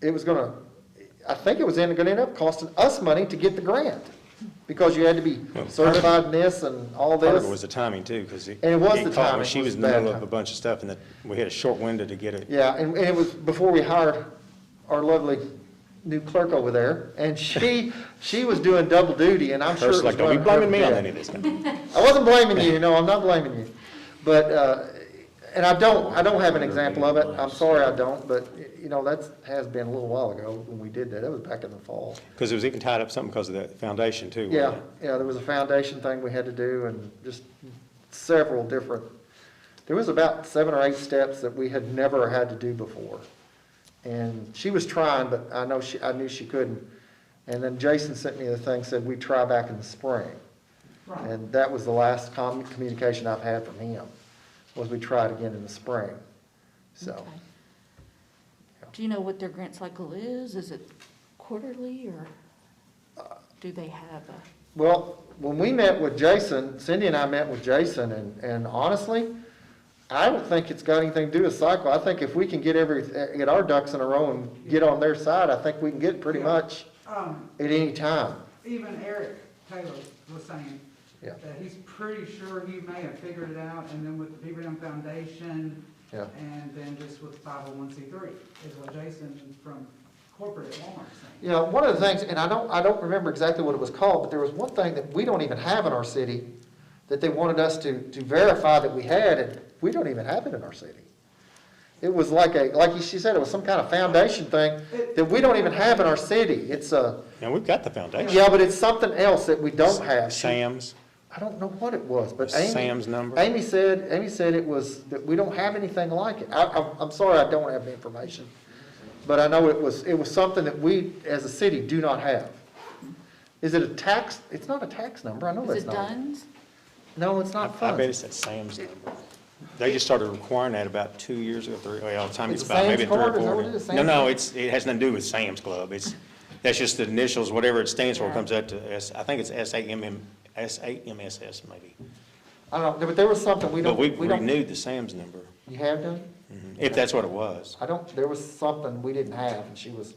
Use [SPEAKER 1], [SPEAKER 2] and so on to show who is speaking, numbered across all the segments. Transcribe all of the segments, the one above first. [SPEAKER 1] it was gonna, I think it was in- gonna end up costing us money to get the grant, because you had to be
[SPEAKER 2] Well, part of-
[SPEAKER 1] certified in this and all
[SPEAKER 2] Part of it was
[SPEAKER 1] this.
[SPEAKER 2] the timing too, because it.
[SPEAKER 1] And it was
[SPEAKER 2] it
[SPEAKER 1] the
[SPEAKER 2] caught when
[SPEAKER 1] timing,
[SPEAKER 2] She
[SPEAKER 1] it
[SPEAKER 2] was
[SPEAKER 1] was
[SPEAKER 2] in the
[SPEAKER 1] bad
[SPEAKER 2] middle of a
[SPEAKER 1] timing.
[SPEAKER 2] bunch of stuff and that, we had a short window to get it.
[SPEAKER 1] Yeah, and, and it was before we hired our lovely new clerk over there, and she, she was doing double duty, and I'm sure it
[SPEAKER 2] First,
[SPEAKER 1] was
[SPEAKER 2] like, don't be
[SPEAKER 1] driving her
[SPEAKER 2] blaming me on
[SPEAKER 1] mad.
[SPEAKER 2] any of this. now.
[SPEAKER 1] I wasn't blaming you, no, I'm not blaming you. But, uh, and I don't, I don't have an example of it, I'm sorry I don't, but, you know, that's, has been a little while ago when we did that, that was back in the fall.
[SPEAKER 2] Because it was even tied up something because of the foundation too. wasn't
[SPEAKER 1] Yeah,
[SPEAKER 2] it?
[SPEAKER 1] yeah, there was a foundation thing we had to do and just several different, there was about seven or eight steps that we had never had to do before. And she was trying, but I know she, I knew she couldn't. And then Jason sent me the thing, said we try back in the spring. And that was the last com- communication I've had from him, was we try it again in the spring, so.
[SPEAKER 3] Okay. Do you know what their grant cycle is? Is it quarterly or
[SPEAKER 1] Uh,
[SPEAKER 3] do they have a,
[SPEAKER 1] Well, when we met with Jason, Cindy and I met with Jason, and, and honestly, I don't think it's got anything to do with cycle. I think if we can get every, get our ducks in a row and get on their side, I think we can get pretty
[SPEAKER 4] Yeah.
[SPEAKER 1] much
[SPEAKER 4] Um,
[SPEAKER 1] at any time.
[SPEAKER 4] even Eric Taylor was saying
[SPEAKER 1] Yeah,
[SPEAKER 4] that he's pretty sure he may have figured it out, and then with the Beaver Dam Foundation,
[SPEAKER 1] yeah.
[SPEAKER 4] and then just with five oh one C three, is what Jason from corporate at Walmart saying.
[SPEAKER 1] You know, one of the things, and I don't, I don't remember exactly what it was called, but there was one thing that we don't even have in our city that they wanted us to, to verify that we had, and we don't even have it in our city. It was like a, like she said, it was some kind of foundation thing that we don't even have in our city. It's a,
[SPEAKER 2] Now, we've got the foundation.
[SPEAKER 1] yeah, but it's something else that we don't have.
[SPEAKER 2] Sam's,
[SPEAKER 1] I don't know what it was, but Amy.
[SPEAKER 2] Sam's number.
[SPEAKER 1] Amy said, Amy said it was, that we don't have anything like it. I, I'm, I'm sorry, I don't have the information. But I know it was, it was something that we, as a city, do not have. Is it a tax? It's not a tax number, I know
[SPEAKER 3] is
[SPEAKER 1] that's
[SPEAKER 3] it
[SPEAKER 1] not.
[SPEAKER 3] Dunn's?
[SPEAKER 1] No, it's
[SPEAKER 2] I
[SPEAKER 1] not
[SPEAKER 2] I bet
[SPEAKER 1] funds.
[SPEAKER 2] it's that Sam's number. They just started requiring that about two years ago, three, well, the time
[SPEAKER 1] Is
[SPEAKER 2] it's
[SPEAKER 1] it
[SPEAKER 2] about, maybe
[SPEAKER 1] Sam's
[SPEAKER 2] three or
[SPEAKER 1] Club? Is that
[SPEAKER 2] four.
[SPEAKER 1] what it is,
[SPEAKER 2] No,
[SPEAKER 1] Sam's
[SPEAKER 2] no,
[SPEAKER 1] Club?
[SPEAKER 2] it's, it has nothing to do with Sam's Club. It's, that's just the initials, whatever it stands for
[SPEAKER 3] Yeah.
[SPEAKER 2] comes out to S, I think it's S A M M, S A M S S maybe.
[SPEAKER 1] I don't, know, but there was something we
[SPEAKER 2] But
[SPEAKER 1] don't,
[SPEAKER 2] we
[SPEAKER 1] we don't.
[SPEAKER 2] renewed the Sam's number,
[SPEAKER 1] You have done?
[SPEAKER 2] mhm, if that's what it was.
[SPEAKER 1] I don't, there was something we didn't have, and she was,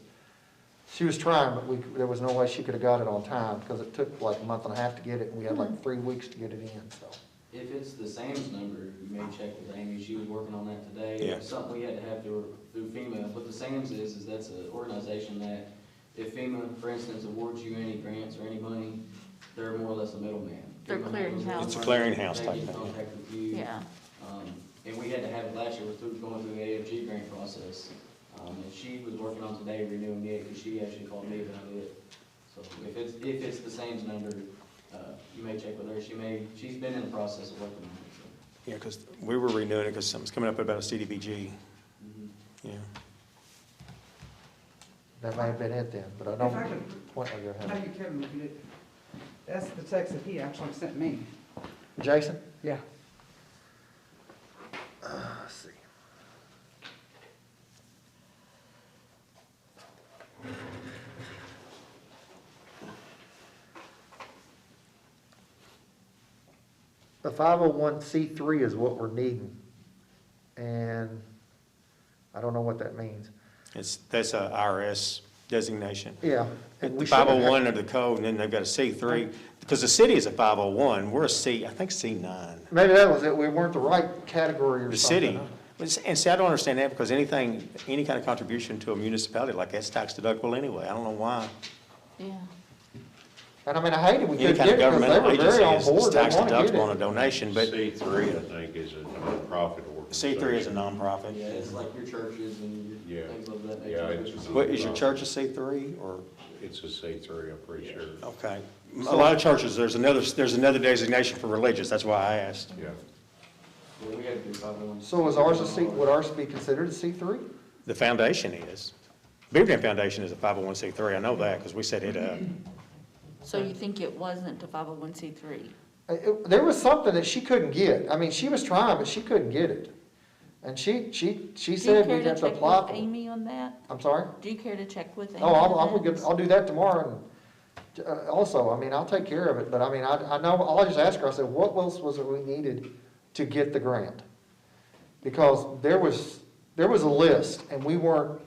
[SPEAKER 1] she was trying, but we, there was no way she could have got it on time, because it took like a month and a half to get it, and we had
[SPEAKER 4] Hmm.
[SPEAKER 1] like three weeks to get it in, so.
[SPEAKER 5] If it's the Sam's number, you may check with Amy, she was working on that today.
[SPEAKER 2] Yeah.
[SPEAKER 5] Something we had to have through, through FEMA, what the Sam's is, is that's an organization that if FEMA, for instance, awards you any grants or any money, they're more or less a middleman.
[SPEAKER 3] They're
[SPEAKER 5] FEMA
[SPEAKER 3] clearinghouse.
[SPEAKER 5] handles
[SPEAKER 3] It's a
[SPEAKER 5] the
[SPEAKER 2] clearinghouse type
[SPEAKER 5] money, They get
[SPEAKER 2] thing,
[SPEAKER 5] in
[SPEAKER 2] yeah.
[SPEAKER 5] contact with you.
[SPEAKER 3] Yeah,
[SPEAKER 5] Um, and we had to have it last year, we're through, going through the AFG grant process. Um, and she was working on today renewing it, because she actually called me about it. So if it's, if it's the Sam's number, uh, you may check with her, she may, she's been in the process of working on it, so.
[SPEAKER 2] Yeah, because we were renewing it because something's coming up about a CDBG,
[SPEAKER 1] Mm-hmm.
[SPEAKER 2] yeah.
[SPEAKER 1] That may have been it then, but I
[SPEAKER 4] If I
[SPEAKER 1] don't,
[SPEAKER 4] could-
[SPEAKER 1] point of your
[SPEAKER 4] How
[SPEAKER 1] hand.
[SPEAKER 4] you, Kevin, if you did, that's the text that he actually sent me.
[SPEAKER 1] Jason?
[SPEAKER 4] Yeah.
[SPEAKER 1] Let's see. The five oh one C three is what we're needing, and I don't know what that means.
[SPEAKER 2] It's, that's a IRS designation.
[SPEAKER 1] Yeah. and
[SPEAKER 2] The
[SPEAKER 1] we shouldn't have-
[SPEAKER 2] 501 under the code, and then they've got a C3, because the city is a 501, we're a C, I think C9.
[SPEAKER 1] Maybe that was it, we weren't the right category or
[SPEAKER 2] The
[SPEAKER 1] something.
[SPEAKER 2] city, and see, I don't understand that, because anything, any kind of contribution to a municipality like that's tax deductible anyway, I don't know why.
[SPEAKER 3] yeah.
[SPEAKER 1] And I mean, I hated we
[SPEAKER 2] Any
[SPEAKER 1] couldn't
[SPEAKER 2] kind
[SPEAKER 1] get
[SPEAKER 2] of
[SPEAKER 1] it because they
[SPEAKER 2] governmental
[SPEAKER 1] were very on
[SPEAKER 2] agency is-
[SPEAKER 1] board,
[SPEAKER 2] is
[SPEAKER 1] they
[SPEAKER 2] tax
[SPEAKER 1] want to
[SPEAKER 2] deductible on a
[SPEAKER 1] get it.
[SPEAKER 2] donation, but
[SPEAKER 6] C three, I think, is a nonprofit organization.
[SPEAKER 2] C3 is a
[SPEAKER 5] Yeah,
[SPEAKER 2] nonprofit.
[SPEAKER 5] it's like your churches and your
[SPEAKER 6] Yeah.
[SPEAKER 5] things of that
[SPEAKER 6] Yeah,
[SPEAKER 5] nature.
[SPEAKER 6] it's-
[SPEAKER 2] What, is your church a C3, or,
[SPEAKER 6] It's a C three, I'm pretty sure,
[SPEAKER 2] okay. A lot of churches, there's another, there's another designation for religious, that's why I asked.
[SPEAKER 6] yeah.
[SPEAKER 5] Yeah, we had to do five oh one.
[SPEAKER 1] So is ours a C, would ours be considered a C three?
[SPEAKER 2] The foundation is. Beaver Dam Foundation is a 501c3. I know that because we set it up.
[SPEAKER 3] So you think it wasn't a 501c3?
[SPEAKER 1] There was something that she couldn't get, I mean, she was trying, but she couldn't get it. And she, she, she
[SPEAKER 3] Do you
[SPEAKER 1] said
[SPEAKER 3] care
[SPEAKER 1] we'd
[SPEAKER 3] to
[SPEAKER 1] have to
[SPEAKER 3] check
[SPEAKER 1] apply
[SPEAKER 3] with
[SPEAKER 1] for it.
[SPEAKER 3] Amy on that?
[SPEAKER 1] I'm sorry?
[SPEAKER 3] Do you care to check with Amy?
[SPEAKER 1] Oh, I'll,
[SPEAKER 3] on
[SPEAKER 1] I'll
[SPEAKER 3] that?
[SPEAKER 1] get, I'll do that tomorrow and, uh, also, I mean, I'll take care of it, but I mean, I, I know, I'll just ask her, I said, what else was it we needed to get the grant? Because there was, there was a list and we weren't